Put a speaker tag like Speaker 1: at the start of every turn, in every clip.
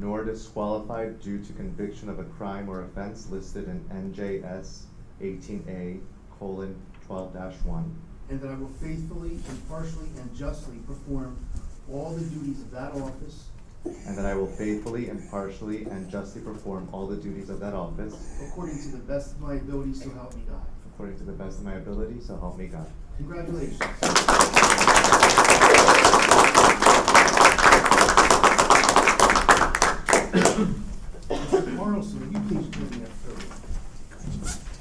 Speaker 1: nor disqualified due to conviction of a crime or offense listed in NJS eighteen A colon twelve one.
Speaker 2: and that I will faithfully, impartially, and justly perform all the duties of that office
Speaker 1: And that I will faithfully, impartially, and justly perform all the duties of that office
Speaker 2: according to the best of my ability, so help me God.
Speaker 1: according to the best of my ability, so help me God.
Speaker 2: Congratulations. Mr. Carlson, will you please join me up front?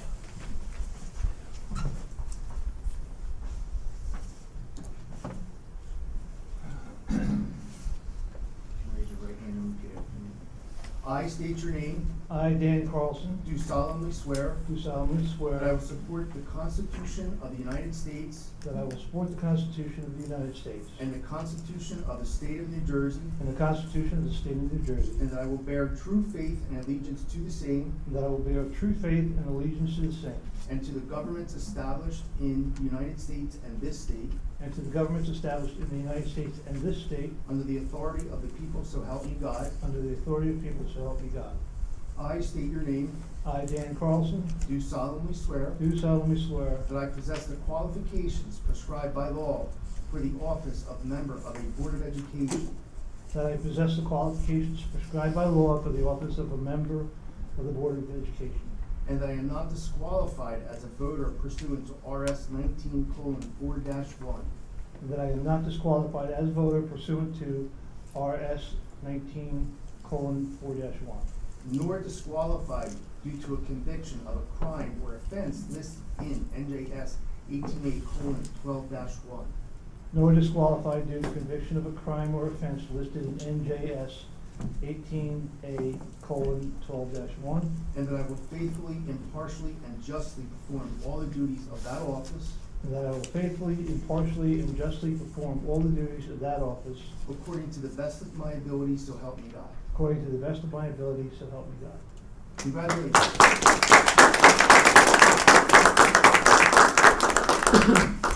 Speaker 2: Raise your right hand and repeat after me. I state your name,
Speaker 3: I, Dan Carlson,
Speaker 2: do solemnly swear
Speaker 3: do solemnly
Speaker 2: that I
Speaker 3: swear
Speaker 2: will support the Constitution of the United States
Speaker 3: that I will support the Constitution of the United States
Speaker 2: And the Constitution of the State of New Jersey.
Speaker 3: and the Constitution of the State of New Jersey,
Speaker 2: And that I will bear true faith and allegiance to the same
Speaker 3: and that I will bear true faith and allegiance to the same,
Speaker 2: and to the governments established in the United States and this state,
Speaker 3: and to the governments established in the United States and this state,
Speaker 2: under the authority of the people, so help me God.
Speaker 3: under the authority of the people, so help me God.
Speaker 2: I state your name,
Speaker 3: I, Dan Carlson,
Speaker 2: do solemnly swear
Speaker 3: do solemnly swear
Speaker 2: that I possess the qualifications prescribed by law for the office of member of a Board of Education,
Speaker 3: that I possess the qualifications prescribed by law for the office of a member of the Board of Education,
Speaker 2: and that I am not disqualified as a voter pursuant to RS nineteen four one,
Speaker 3: and that I am not disqualified as voter pursuant to RS nineteen four one.
Speaker 2: nor disqualified due to a conviction of a crime or offense listed in NJS eighteen A twelve one,
Speaker 3: nor disqualified due to conviction of a crime or offense listed in NJS eighteen A colon twelve one,
Speaker 2: and that I will faithfully, impartially, and justly perform all the duties of that office
Speaker 3: and that I will faithfully, impartially, and justly perform all the duties of that office
Speaker 2: according to the best of my ability, so help me God.
Speaker 3: according to the best of my ability, so help me God.
Speaker 2: Congratulations.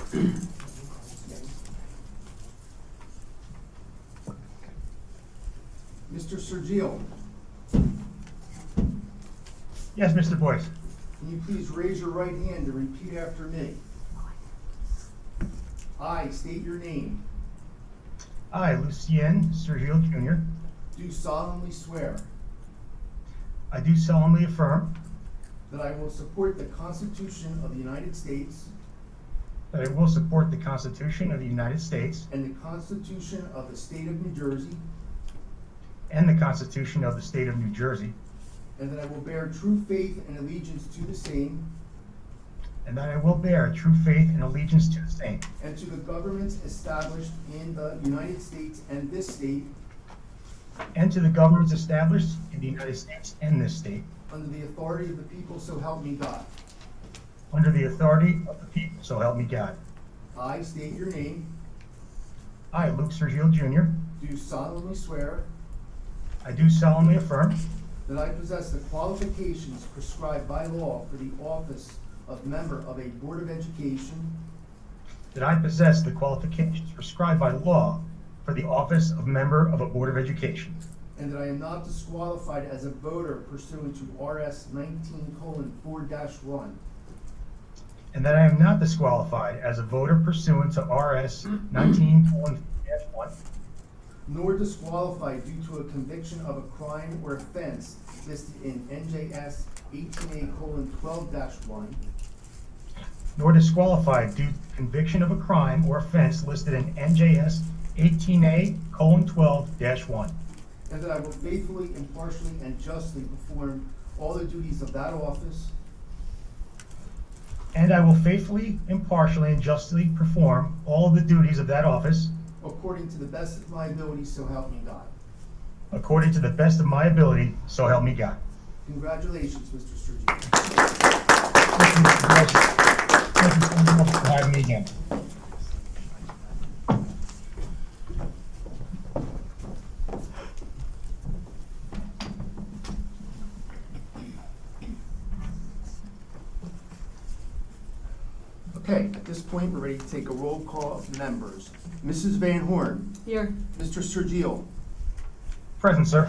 Speaker 2: Mr. Sergio,
Speaker 4: Yes, Mr. Boyce.
Speaker 2: can you please raise your right hand and repeat after me? I state your name,
Speaker 4: I, Lucien Sergio Jr.,
Speaker 2: do solemnly swear
Speaker 4: I do solemnly affirm
Speaker 2: that I will support the Constitution of the United States
Speaker 4: that I will support the Constitution of the United States
Speaker 2: and the Constitution of the State of New Jersey,
Speaker 4: and the Constitution of the State of New Jersey,
Speaker 2: And that I will bear true faith and allegiance to the same
Speaker 4: and that I will bear true faith and allegiance to the same,
Speaker 2: and to the governments established in the United States and this state
Speaker 4: and to the governments established in the United States and this state,
Speaker 2: under the authority of the people, so help me God.
Speaker 4: under the authority of the people, so help me God.
Speaker 2: I state your name,
Speaker 4: I, Luke Sergio Jr.,
Speaker 2: do solemnly swear
Speaker 4: I do solemnly affirm
Speaker 2: that I possess the qualifications prescribed by law for the office of member of a Board of Education,
Speaker 4: that I possess the qualifications prescribed by law for the office of member of a Board of Education,
Speaker 2: and that I am not disqualified as a voter pursuant to RS nineteen four one,
Speaker 4: And that I am not disqualified as a voter pursuant to RS nineteen one,
Speaker 2: nor disqualified due to a conviction of a crime or offense listed in NJS eighteen A twelve one,
Speaker 4: nor disqualified due to conviction of a crime or offense listed in NJS eighteen A twelve one,
Speaker 2: and that I will faithfully, impartially, and justly perform all the duties of that office
Speaker 4: and I will faithfully, impartially, and justly perform all the duties of that office
Speaker 2: according to the best of my ability, so help me God.
Speaker 4: according to the best of my ability, so help me God.
Speaker 2: Congratulations, Mr. Sergio.
Speaker 4: Thank you, Mr. Gross. Thank you so much for having me again.
Speaker 2: Okay, at this point, we're ready to take a roll call of members. Mrs. Van Horn,
Speaker 5: Here.
Speaker 2: Mr. Sergio,
Speaker 4: Present, sir.